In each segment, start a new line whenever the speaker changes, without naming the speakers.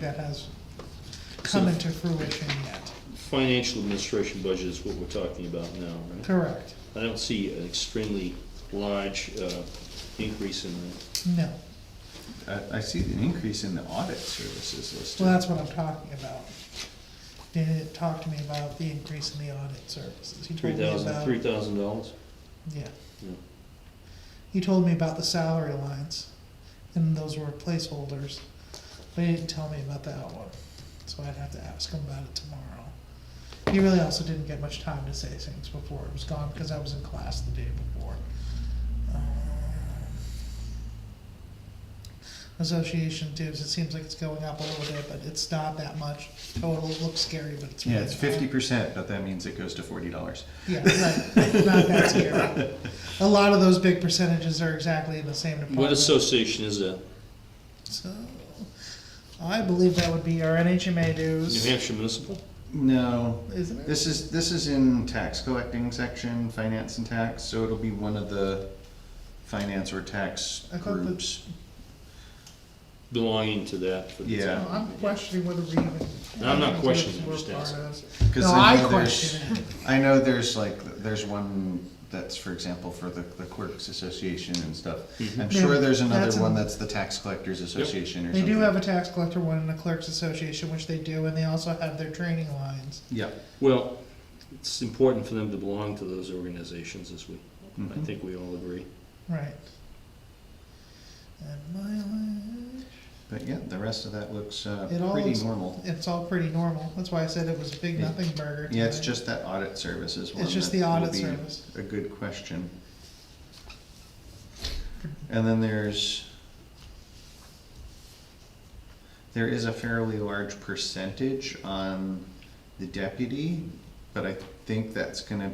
that has come into fruition yet.
Financial administration budget is what we're talking about now, right?
Correct.
I don't see an extremely large uh, increase in the,
No.
I, I see an increase in the audit services listed.
Well, that's what I'm talking about. Did talk to me about the increase in the audit services. He
three
told me
thousand,
about-
three thousand dollars.
Yeah.
Yeah.
He told me about the salary lines, and those were placeholders, but he didn't tell me about that one. So I'd have to ask him about it tomorrow. He really also didn't get much time to say things before it was gone, because I was in class the day before. Um, Association dues, it seems like it's going up a little bit, but it's not that much total, it looks scary, but it's.
Yeah,
really
it's
not.
fifty percent, but that means it goes to forty dollars.
Yeah, right, not that scary. A lot of those big percentages are exactly in the same department.
What association is that?
So, I believe that would be our NHMA
New
dues,
Hampshire Municipal?
No,
isn't it?
this is, this is in tax collecting section, finance and tax, so it'll be one of the finance or tax
I thought that-
groups.
Belonging to that for the
Yeah.
No,
town?
I'm questioning whether we even.
No, I'm not questioning, I'm
We're
just
part
asking.
of this.
'Cause
No,
I
I
know there's-
question it.
I know there's like, there's one that's, for example, for the, the clerks association and stuff.
Mm-hmm.
I'm
Yeah,
sure
that's
there's another
in-
one that's the tax collectors association or
They
something.
do have a tax collector one and a clerks association, which they do, and they also have their training lines.
Yeah,
Well, it's important for them to belong to those organizations, as we, I
Mhm.
think we all agree.
Right. And mileage,
but yeah, the rest of that looks, uh,
It all
pretty
looks-
normal.
it's all pretty normal. That's why I said it was a big
Yeah.
nothing burger.
Yeah, it's
tonight.
just that audit services one.
It's just
that
the
will
audit
be
service.
A good question. And then there's, there is a fairly large percentage on the deputy, but I think that's gonna,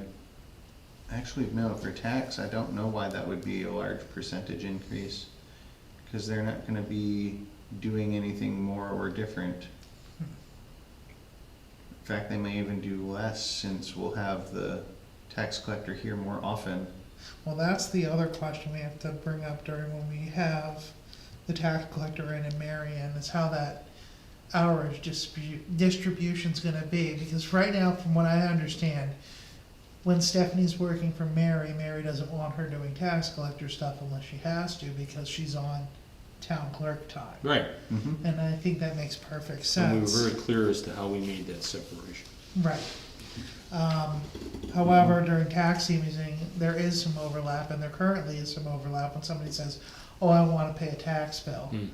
actually, no, for tax, I don't know why that would be a large percentage increase. Cause they're not gonna be doing anything more or different. In fact, they may even do less since we'll have the tax collector here more often.
Well, that's the other question we have to bring up during when we have the tax collector in and Marion, is how that hours dispute, distribution's gonna be, because right now, from what I understand, when Stephanie's working for Mary, Mary doesn't want her doing tax collector stuff unless she has to, because she's on town clerk time.
Right.
Mhm.
And I think that makes perfect sense.
And we were very clear as to how we made that separation.
Right. Um, however, during tax season, there is some overlap, and there currently is some overlap when somebody says, oh, I wanna pay a tax bill.
Hmm.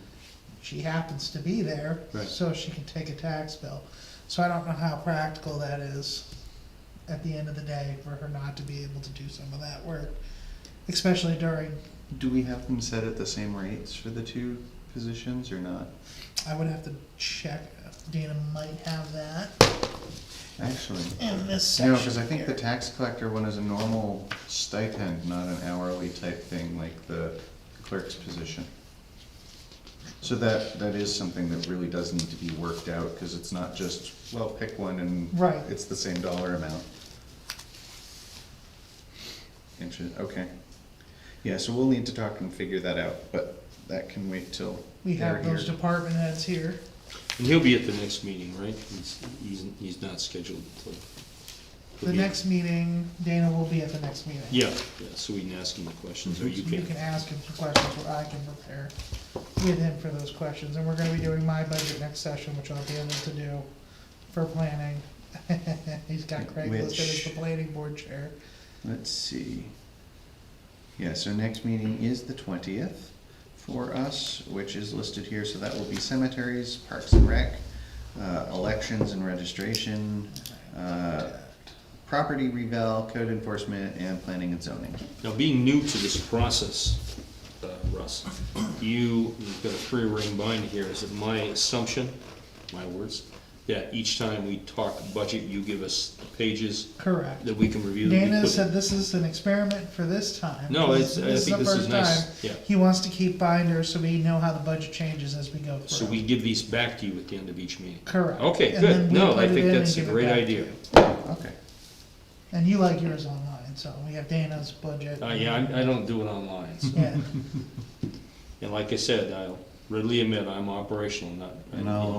She happens to be there,
Right.
so she can take a tax bill. So I don't know how practical that is at the end of the day for her not to be able to do some of that work, especially during,
Do we have them set at the same rates for the two positions or not?
I would have to check, Dana might have that
Actually,
in this section
no, because I think the
here.
tax collector one is a normal stipend, not an hourly type thing like the clerk's position. So that, that is something that really does need to be worked out, because it's not just, well, pick one and
Right.
it's the same dollar amount. Interest, okay. Yeah, so we'll need to talk and figure that out, but that can wait till
We
they're
have those
here.
department heads here.
And he'll be at the next meeting, right? He's, he's, he's not scheduled to.
The next meeting, Dana will be at the next meeting.
Yeah, yeah, so we can ask him the questions, or you
So you can
can.
ask him some questions, or I can prepare with him for those questions, and we're gonna be doing my budget next session, which I'll be able to do for planning. He's got Craig listed as
Which-
the planning board chair.
Let's see. Yeah, so next meeting is the twentieth for us, which is listed here, so that will be cemeteries, parks and rec, uh, elections and registration, uh, property revale, code enforcement, and planning and zoning.
Now, being new to this process, uh, Russ, you, you've got a three-ring bind here. Is it my assumption, my words, that each time we talk budget, you give us pages
Correct.
that we can review? that we
Dana
put-
said this is an experiment for this time.
No, it's- I
the
think this is
first
nice,
time.
yeah.
He wants to keep binders, so we know how the budget changes as we go through.
So we give these back to you at the end of each meeting?
Correct.
Okay,
And then
good.
we
No,
put
I
it
think
in and
that's a
give it
great
back to
idea.
you.
Okay.
And you like yours online, so we have Dana's budget.
Uh, yeah, I, I don't do it online, so.
Yeah,
And like I said, I'll readily admit I'm operational, not.
And I'll